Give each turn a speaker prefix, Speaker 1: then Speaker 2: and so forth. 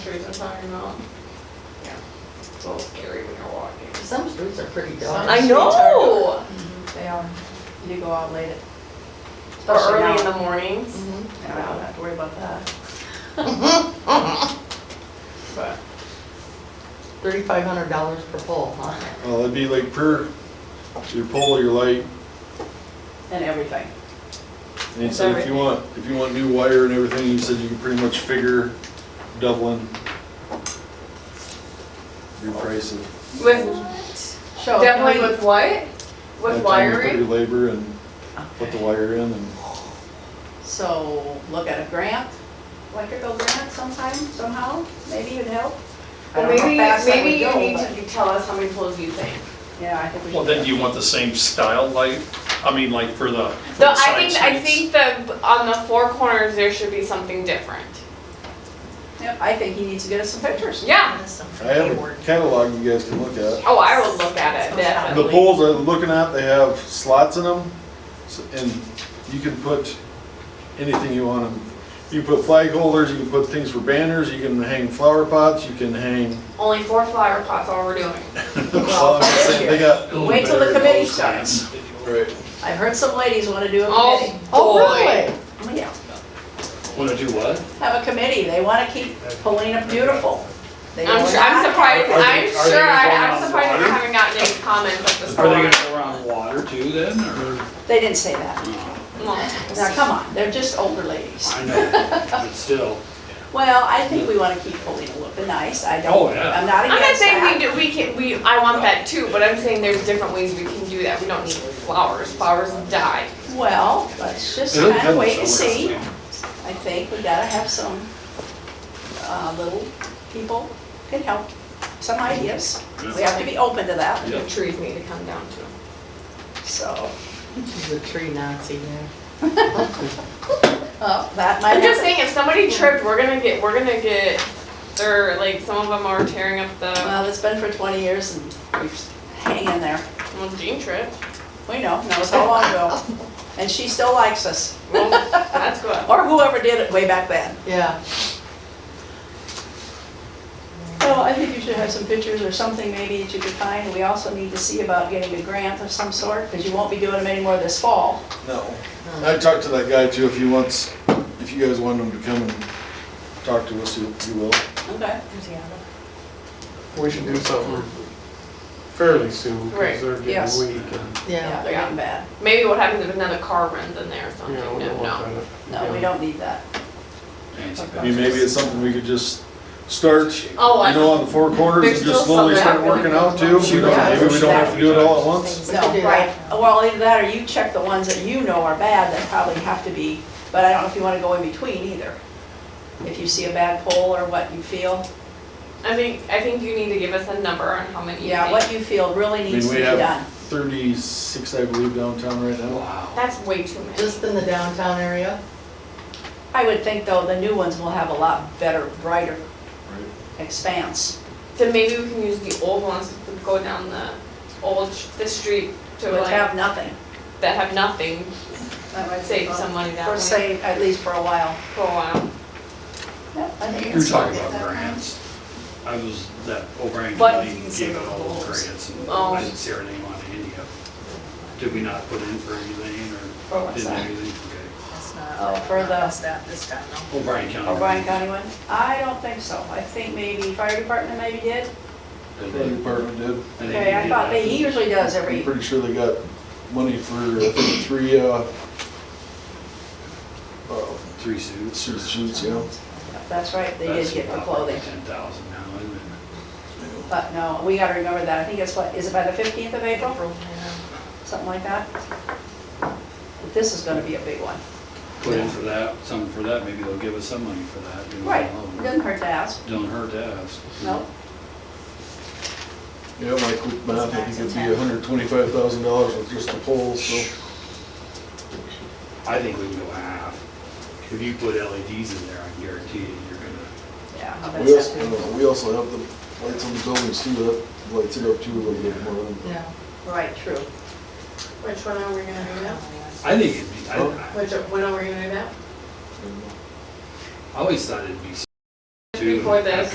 Speaker 1: Trees are talking about, yeah, it's a little scary when you're walking.
Speaker 2: Some streets are pretty
Speaker 1: Some
Speaker 2: dark.
Speaker 3: I
Speaker 1: streets are
Speaker 3: know.
Speaker 1: dark.
Speaker 3: They are. You go out late.
Speaker 1: Or
Speaker 3: Especially
Speaker 1: early in
Speaker 3: now.
Speaker 1: the mornings,
Speaker 3: Yeah, I don't have to worry about that.
Speaker 2: Mm-hmm.
Speaker 1: but
Speaker 2: Thirty-five hundred dollars per pole, huh?
Speaker 4: Well, Uh, that'd be like per, your pole, your light,
Speaker 3: And everything.
Speaker 4: and he said if you want, if you want new wire and everything, he said you can pretty much figure doubling your price of.
Speaker 1: with,
Speaker 3: So can
Speaker 1: definitely
Speaker 3: we,
Speaker 1: Oh, with what?
Speaker 4: by
Speaker 1: With
Speaker 4: the time you Put your
Speaker 1: wiring?
Speaker 4: labor and put the wire in and
Speaker 3: so look at a grant, electrical grant sometime, somehow, maybe it'd help. I
Speaker 1: Well,
Speaker 3: don't know how
Speaker 1: maybe,
Speaker 3: fast that
Speaker 1: maybe
Speaker 3: would
Speaker 1: you
Speaker 3: go,
Speaker 1: need
Speaker 3: but-
Speaker 1: to tell us how many poles you think.
Speaker 3: Yeah, I think we should.
Speaker 5: Well, then do you want the same style light? I mean, like for the, for
Speaker 1: The,
Speaker 5: the
Speaker 1: I
Speaker 5: side
Speaker 1: think, I
Speaker 5: streets?
Speaker 1: think the, on the four corners, there should be something different.
Speaker 3: Yep, I think he needs to get us some pictures.
Speaker 1: Yeah,
Speaker 4: I have a catalog you guys can look at.
Speaker 1: oh, I would look at it,
Speaker 4: The
Speaker 1: definitely.
Speaker 4: poles I'm looking at, they have slots in them, so- and you can put anything you want 'em. You can put flag holders, you can put things for banners, you can hang flower pots, you can hang
Speaker 1: Only four flower pots, all we're doing.
Speaker 4: Well, I'm just saying, they got-
Speaker 3: Wait till the committee starts.
Speaker 4: Right.
Speaker 3: I heard some ladies wanna do a
Speaker 1: Oh.
Speaker 3: committee.
Speaker 2: Oh,
Speaker 1: Boy.
Speaker 2: really?
Speaker 3: Oh, yeah.
Speaker 5: Wanna do what?
Speaker 3: Have a committee, they wanna keep Polina beautiful. They
Speaker 1: I'm
Speaker 3: will
Speaker 1: sure, I'm
Speaker 3: not-
Speaker 1: surprised,
Speaker 5: Are they-
Speaker 1: I'm
Speaker 5: are they
Speaker 1: sure, I-
Speaker 5: going
Speaker 1: I'm
Speaker 5: on
Speaker 1: surprised I
Speaker 5: water?
Speaker 1: haven't gotten any comments at this
Speaker 5: Are they
Speaker 1: point.
Speaker 5: gonna go around water too then, or?
Speaker 3: They didn't say that. Now,
Speaker 1: No.
Speaker 3: come on, they're just older ladies.
Speaker 5: I know, but still.
Speaker 3: Well, I think we wanna keep Polina looking nice, I
Speaker 5: Oh,
Speaker 3: don't,
Speaker 5: yeah.
Speaker 3: I'm not
Speaker 1: I'm not
Speaker 3: against
Speaker 1: saying we
Speaker 3: that.
Speaker 1: do, we can, we, I want that too, but I'm saying there's different ways we can do that, we don't need flowers, flowers die.
Speaker 3: Well, let's just
Speaker 4: It'll
Speaker 3: kinda
Speaker 4: come
Speaker 3: wait and
Speaker 4: somewhere.
Speaker 3: see. I think we gotta have some, uh, little people can help, some ideas. We have to be open to that,
Speaker 1: The trees need to come down too.
Speaker 3: so,
Speaker 2: She's a tree Nazi there.
Speaker 3: uh, that might
Speaker 1: I'm just
Speaker 3: happen.
Speaker 1: saying, if somebody tripped, we're gonna get, we're gonna get, they're, like, some of them are tearing up the,
Speaker 3: Well, it's been for twenty years and we've hang in there.
Speaker 1: well, Jean tripped.
Speaker 3: We know, knows how long ago. And she still likes us,
Speaker 1: Well, that's good.
Speaker 3: or whoever did it way back then.
Speaker 2: Yeah.
Speaker 3: Well, I think you should have some pictures or something maybe that you could find. We also need to see about getting a grant of some sort, because you won't be doing them anymore this fall.
Speaker 4: No. I talked to that guy too, if he wants, if you guys want him to come and talk to us, he he will.
Speaker 3: Okay.
Speaker 6: We should do something fairly soon,
Speaker 1: Right,
Speaker 6: because they're
Speaker 3: yes.
Speaker 6: getting weak and,
Speaker 3: Yeah,
Speaker 2: Yeah.
Speaker 3: they're getting bad.
Speaker 1: Maybe what happens if another car runs in there or
Speaker 6: you
Speaker 1: something,
Speaker 6: know,
Speaker 1: no,
Speaker 6: we don't want
Speaker 1: no.
Speaker 6: that.
Speaker 3: No, we don't need that.
Speaker 4: I mean, maybe it's something we could just start, you
Speaker 1: Oh, I
Speaker 4: know, on the four corners
Speaker 1: There's
Speaker 4: and just
Speaker 1: still
Speaker 4: slowly
Speaker 1: some
Speaker 4: start
Speaker 1: that-
Speaker 4: working out too. We don't- Maybe we don't have to do it all at once.
Speaker 2: We
Speaker 3: No,
Speaker 2: could do
Speaker 3: right.
Speaker 2: that.
Speaker 3: Well, either that or you check the ones that you know are bad that probably have to be, but I don't know if you want to go in between either. If you see a bad poll or what you feel,
Speaker 1: I think, I think you need to give us a number on how many you
Speaker 3: yeah,
Speaker 1: think.
Speaker 3: what you feel really
Speaker 4: I
Speaker 3: needs to
Speaker 4: mean, we
Speaker 3: be
Speaker 4: have
Speaker 3: done.
Speaker 4: thirty-six, I believe, downtown right now.
Speaker 1: That's way too many.
Speaker 2: Just in the downtown area?
Speaker 3: I would think though, the new ones will have a lot better, brighter
Speaker 4: Right.
Speaker 3: expanse.
Speaker 1: Then maybe we can use the old ones to go down the old, sh- the street to
Speaker 3: Would
Speaker 1: like,
Speaker 3: have nothing.
Speaker 1: that have nothing,
Speaker 3: That might
Speaker 1: save some money that
Speaker 3: Or
Speaker 1: way
Speaker 3: save, at least for a while.
Speaker 1: for a while.
Speaker 3: Yep, I think
Speaker 7: You're
Speaker 3: it's-
Speaker 7: talking about grants. I was, that O'Brien
Speaker 1: What?
Speaker 7: County gave out all those grants and
Speaker 1: Oh.
Speaker 7: I didn't see our name on any of them. Did we not put in for anything
Speaker 3: Oh,
Speaker 7: or
Speaker 3: what's
Speaker 7: didn't
Speaker 3: that?
Speaker 7: do anything? Okay.
Speaker 3: Oh, for the
Speaker 7: O'Brien County.
Speaker 3: O'Brien County one? I don't think so. I think maybe fire department maybe did.
Speaker 7: Did
Speaker 4: Fire
Speaker 7: they-
Speaker 4: department did.
Speaker 7: think they
Speaker 3: Okay, I
Speaker 7: did
Speaker 3: thought
Speaker 7: that.
Speaker 3: they, he usually does
Speaker 4: I'm
Speaker 3: every,
Speaker 4: pretty sure they got money for I think, three, uh, uh,
Speaker 7: Three suits.
Speaker 4: suits, suits, yeah.
Speaker 3: that's right, they did get the clothing.
Speaker 7: Ten thousand now, isn't it?
Speaker 3: But no, we gotta remember that. I think it's what, is it by the fifteenth of April? Something like that? But This is gonna be a big one.
Speaker 7: Put in for that, some for that, maybe they'll give us some money for that. you know,
Speaker 3: Right,
Speaker 7: alone.
Speaker 3: doesn't hurt to ask.
Speaker 7: Don't hurt to ask.
Speaker 3: No,
Speaker 4: Yeah, Mike, with math, I think it'd be hundred twenty-five thousand dollars with just the poles, so.
Speaker 7: I think we can go half. If you put LEDs in there, I guarantee you, you're gonna,
Speaker 3: yeah. I'll bet
Speaker 4: We
Speaker 3: it's
Speaker 4: also,
Speaker 3: not-
Speaker 4: uh, we also have the lights on the buildings too, that lights it up too a little bit more.
Speaker 2: Yeah.
Speaker 3: Right, true.
Speaker 1: Which one are we gonna do now?
Speaker 7: I think it'd be, I,
Speaker 4: Oh.
Speaker 7: I-
Speaker 1: Which, when
Speaker 4: uh,
Speaker 1: are we gonna do that?
Speaker 7: I always thought it'd be.
Speaker 1: Before this.